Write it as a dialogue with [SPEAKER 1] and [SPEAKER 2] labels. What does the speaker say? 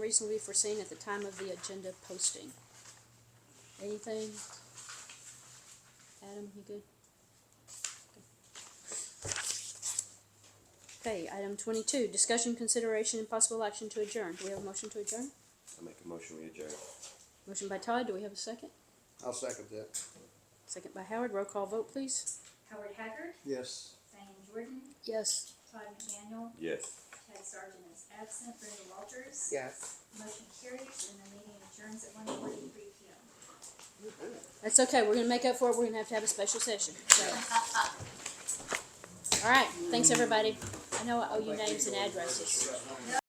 [SPEAKER 1] reasonably foreseen at the time of the agenda posting. Anything? Adam, you good? Okay, item twenty-two, discussion, consideration, and possible action to adjourn. Do we have a motion to adjourn?
[SPEAKER 2] I make a motion, we adjourn.
[SPEAKER 1] Motion by Todd, do we have a second?
[SPEAKER 3] I'll second that.
[SPEAKER 1] Second by Howard, roll call vote, please.
[SPEAKER 4] Howard Haggard,
[SPEAKER 3] Yes.
[SPEAKER 4] Diane Jordan,
[SPEAKER 1] Yes.
[SPEAKER 4] Todd McDaniel,
[SPEAKER 2] Yes.
[SPEAKER 4] Ted Sargent is absent, Brenda Walters.
[SPEAKER 5] Yes.
[SPEAKER 4] Motion carries and the meeting adjourns at one forty-three P M.
[SPEAKER 1] That's okay, we're gonna make up for it, we're gonna have to have a special session, so. All right, thanks, everybody. I know I owe you names and addresses.